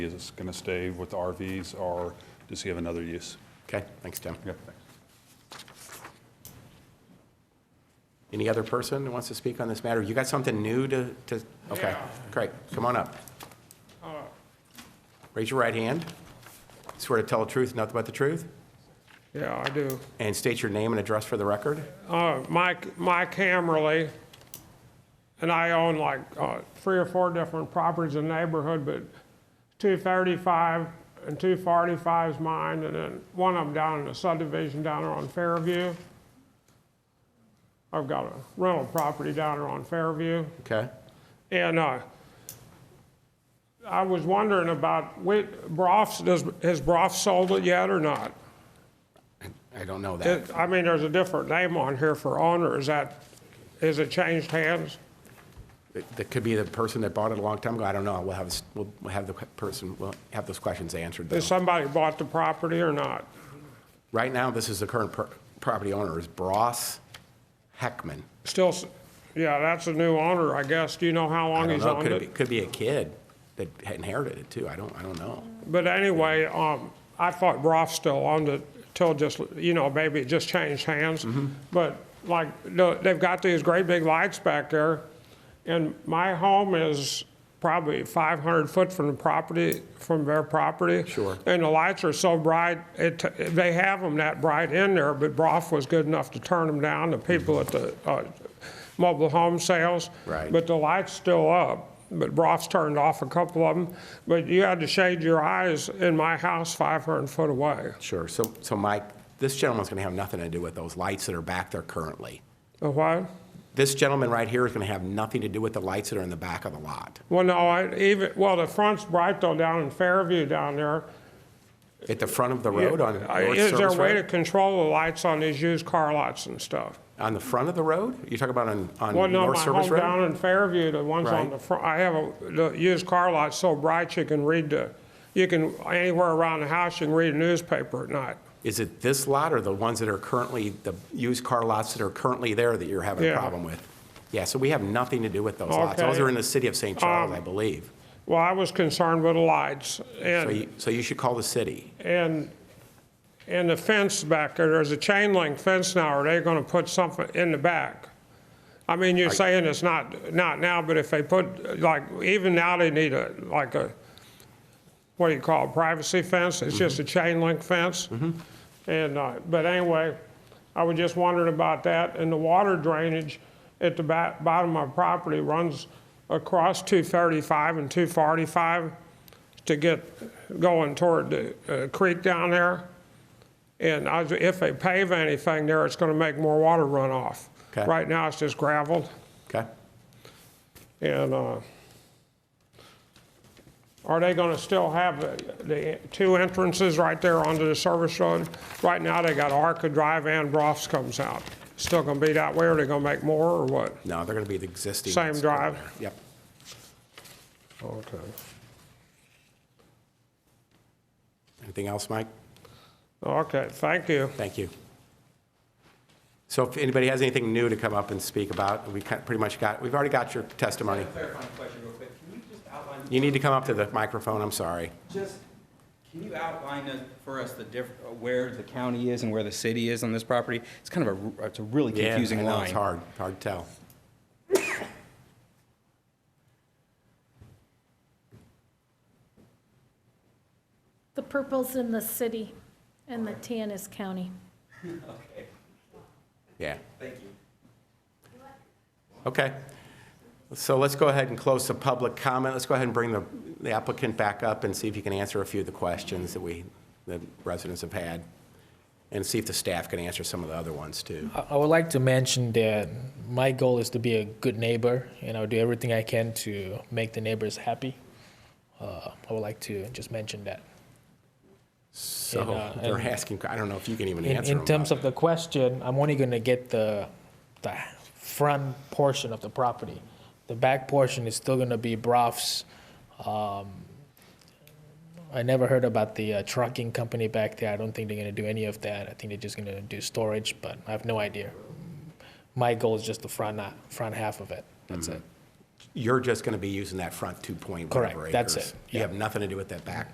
Is this going to stay with the RVs, or does he have another use? Okay, thanks, Tim. Okay, thanks. Any other person who wants to speak on this matter? You got something new to, to, okay, great, come on up. Raise your right hand. Swear to tell the truth, nothing but the truth, Yeah, I do. and state your name and address for the record. Uh, Mike, Mike Hammerly, and I own like uh, three or four different properties in the neighborhood, but 235 and 245 is mine, and then one of them down in the subdivision down there on Fairview. I've got a rental property down there on Fairview. Okay, And uh, I was wondering about, Whit- Broff's, does, has Broff sold it yet or not? I don't know that. It- I mean, there's a different name on here for owner, is that, is it changed hands? That- That could be the person that bought it a long time ago, I don't know. We'll have, s- we'll we'll have the person, we'll have those questions answered. though. Has somebody bought the property or not? Right now, this is the current per- property owner is Bross Heckman. Still, s- yeah, that's a new owner, I guess, do you know how I long don't he's know, owned could be, it? could be a kid that had inherited it too, I don't, I don't know. But anyway, um, I thought Broff still owned it till just, you know, maybe it just changed hands. Mm-hmm. But like, the- they've got these great big lights back there, and my home is probably 500 foot from the property, from their property. Sure. And the lights are so bright, it, t- they have them that bright in there, but Broff was good enough to turn them down, the people at the uh, mobile home sales. Right. But the light's still up, but Broff's turned off a couple of them. But you had to shade your eyes in my house 500 foot away. Sure, so, so Mike, this gentleman's gonna have nothing to do with those lights that are back there currently. The What? This gentleman right here is gonna have nothing to do with the lights that are in the back of the lot. Well, no, I even, well, the front's bright though down in Fairview down there. At the front of the road on North Uh, Is there a Service way to Road? control the lights on these used car lots and stuff? On the front of the road? You're talking about on, Well, on no, North my Service home down Road? in Fairview, the ones Right. on the front, I have a, the used car lot so bright you can read the, you can, anywhere around the house, you can read a newspaper at night. Is it this lot or the ones that are currently, the used car lots that are currently there that you're having a Yeah. problem with? Yeah, so we have nothing to do with those lots. Those Okay. Um, are in the city of St. Charles, I believe. Well, I was concerned with the lights So and, you, so you should call the city. and, and the fence back there, there's a chain link fence now, are they gonna put something in the back? I mean, you're saying it's not, not now, but if they put, like, even now they need a, like a, what do you call it, privacy fence? It's just a chain link fence? And, uh, but anyway, I was just wondering about that, and the water drainage at the ba- bottom of my property runs across 235 and 245 to get going toward the uh, creek down there. And I was- if they pave anything there, it's going to make more water run off. Okay. Right now, it's just gravel, Okay? and uh, are they going to still have the- the two entrances right there onto the service road? Right now, they got Arca Drive and Brof's comes out. Still going to be that way, or they going to make more, or what? No, they're gonna be the existing. Same ones that are drive? there. Yep. Okay. Anything else, Mike? Okay, thank you. Thank you. So if anybody has anything new to come up and speak about, we kind- pretty much got, we've already got your testimony. clarifying question real quick. Can you just outline, You need to come up to the microphone, I'm sorry. just, can you outline us- for us the diff, uh, where the county is and where the city is on this property? It's kind of a, r- it's a really Yeah, I confusing know, line. It's hard, hard to tell. The purple's in the city, and the tan is county. Okay, Yeah, thank you. okay. So let's go ahead and close the public comment. Let's go ahead and bring the the applicant back up and see if you can answer a few of the questions that we, the residents have had, and see if the staff can answer some of the other ones, too. I- I would like to mention that my goal is to be a good neighbor, and I'll do everything I can to make the neighbors happy. Uh, I would like to just mention that. So And, uh, they're and- asking, I don't know if you can even In, answer them. in terms of the question, I'm only going to get the the front portion of the property. The back portion is still going to be Brof's. Um, I never heard about the uh, trucking company back there. I don't think they're going to do any of that. I think they're just going to do storage, but I have no idea. My goal is just the front, uh, front half of it. That's it. you're just going to be using that front 2.1 Correct, acres. that's it, You yeah. have nothing to do with that back